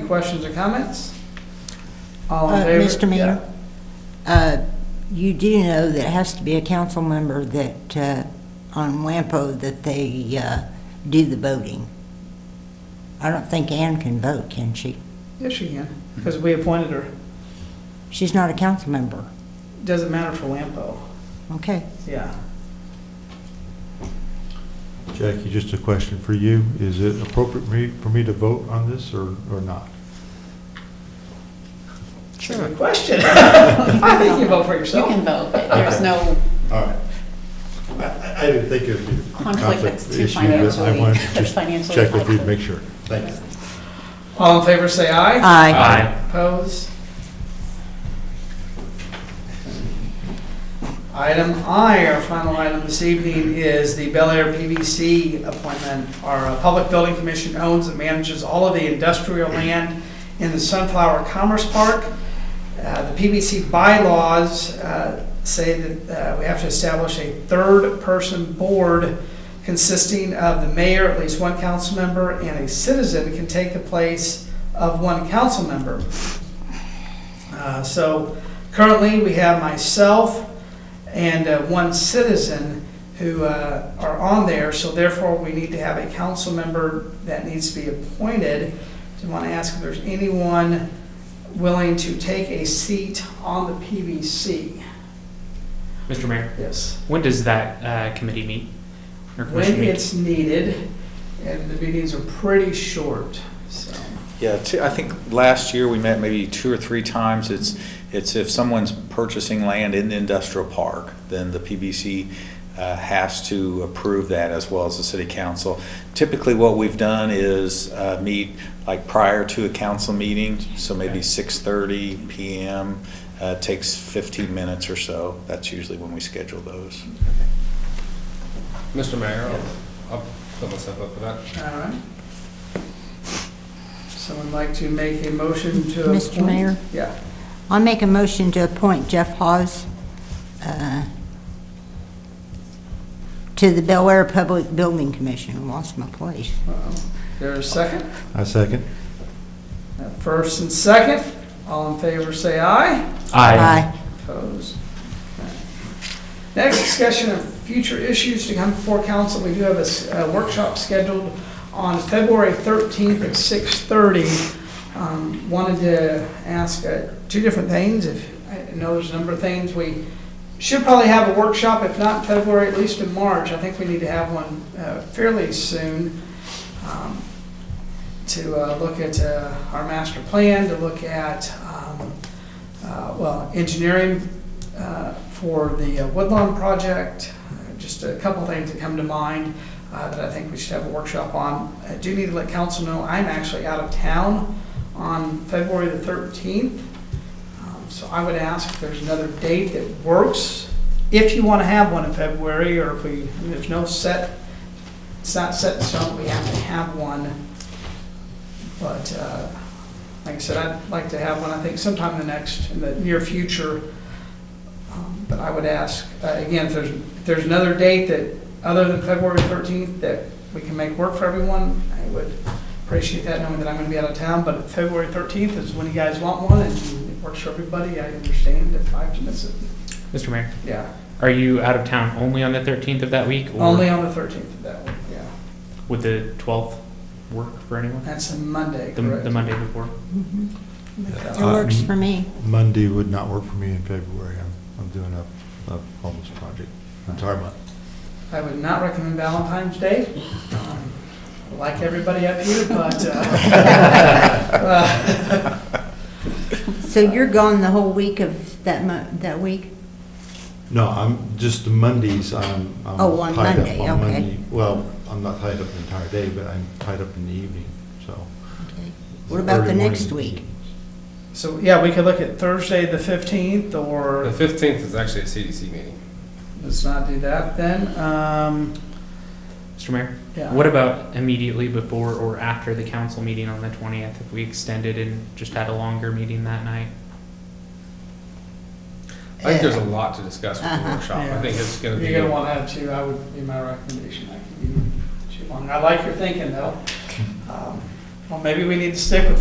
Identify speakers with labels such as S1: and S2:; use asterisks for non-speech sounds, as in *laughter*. S1: questions or comments? All in
S2: Uh,
S1: favor?
S2: Mr. Mayor,
S1: Yeah.
S2: uh, you do know that it has to be a council member that, uh, on WAMPO, that they uh, do the voting. I don't think Ann can vote, can she?
S1: Yes, you can, because we appointed her.
S2: She's not a council member.
S1: Doesn't matter for Lampo,
S2: Okay.
S1: yeah.
S3: Jackie, just a question for you. Is it appropriate for me, for me to vote on this or, or not?
S1: Good question. *laughs* I think you vote for
S4: You
S1: yourself.
S4: can vote, but there's no,
S3: All right. I- I, I didn't think it'd be a
S4: Conflict, that's
S3: conflict
S4: too
S3: issue, but I
S4: financially-
S3: wanted to
S2: *laughs*
S4: that's
S3: just
S4: financially
S3: check with you to
S4: conflict.
S3: make sure. Thanks.
S1: All in favor, say aye.
S2: Aye.
S1: Opposed? Item I, our final item this evening, is the Bel Air PVC appointment. Our uh, Public Building Commission owns and manages all of the industrial land in the Sunflower Commerce Park. Uh, The PVC bylaws uh, say that uh, we have to establish a third-person board consisting of the mayor, at least one council member, and a citizen can take the place of one council member. Uh, So currently, we have myself and uh, one citizen who uh, are on there, so therefore, we need to have a council member that needs to be appointed. So I want to ask if there's anyone willing to take a seat on the PVC.
S5: Mr. Mayor,
S1: Yes.
S5: when does that uh, committee meet? Or commission
S1: When
S5: meet?
S1: it's needed, and the meetings are pretty short, so.
S6: Yeah, t- I think last year we met maybe two or three times. It's, it's if someone's purchasing land in the industrial park, then the PBC uh, has to approve that as well as the city council. Typically, what we've done is uh, meet like prior to a council meeting, so maybe 6:30 PM. uh, Takes 15 minutes or so. That's usually when we schedule those.
S7: Mr. Mayor, I'll- I'll put myself up for that.
S1: All right. Someone like to make a motion to appoint?
S2: Mr. Mayor?
S1: Yeah.
S2: I make a motion to appoint Jeff Hawes uh, to the Bel Air Public Building Commission. Lost my place.
S1: Uh-oh. There's a second?
S3: I second.
S1: Uh, First and second, all in favor, say aye. Opposed? Okay. Next, discussion of future issues to come before council. We do have a s- a workshop scheduled on February 13th at 6:30. Um, Wanted to ask uh, two different things. If, I know there's a number of things. We should probably have a workshop, if not in February, at least in March. I think we need to have one uh, fairly soon um, to uh, look at uh, our master plan, to look at, um, uh, well, engineering uh, for the uh, Woodlawn project, uh, just a couple things that come to mind uh, that I think we should have a workshop on. I do need to let council know, I'm actually out of town on February the 13th, Um, so I would ask if there's another date that works, if you want to have one in February, or if we, there's no set, it's not set in stone, we have to have one, but uh, like I said, I'd like to have one, I think sometime in the next, in the near future. Um, But I would ask, uh, again, if there's, if there's another date that, other than February 13th, that we can make work for everyone, I would appreciate that, knowing that I'm going to be out of town, but February 13th is when you guys want one, and it works for everybody, I understand if I have to miss it.
S5: Mr. Mayor,
S1: Yeah,
S5: are you out of town only on the 13th of that week? or
S1: only on the 13th of that week, yeah.
S5: Would the 12th work for anyone?
S1: That's a Monday,
S5: The
S1: correct?
S5: the Monday before?
S2: It
S3: Uh,
S2: Mm-hmm. works for me.
S3: Monday would not work for me in February. I'm, I'm doing a, a homeless project, entire month.
S1: I would not recommend Valentine's Day, um, like everybody up here, but,
S5: *laughs*
S1: uh,
S2: So you're gone the whole week of that mo, that week?
S3: No, I'm, just the Mondays, I'm, I'm
S2: Oh, on
S3: tied up
S2: Monday,
S3: on
S2: okay.
S3: Monday. Well, I'm not tied up the entire day, but I'm tied up in the evening, so.
S2: What about the
S3: early morning
S2: next week?
S3: meetings.
S1: so, yeah, we could look at Thursday, the 15th, or
S7: The 15th is actually a CDC meeting.
S1: Let's not do that then. Um,
S5: Mr. Mayor,
S1: yeah.
S5: what about immediately before or after the council meeting on the 20th? If we extended and just had a longer meeting that night?
S7: I think there's a lot to discuss with the
S2: Uh-huh.
S7: workshop.
S1: Yeah.
S7: I think it's going to be.
S1: You're gonna want to have two, I would be my recommendation. I can be too long. I like your thinking though. Um, Well, maybe we need to stick with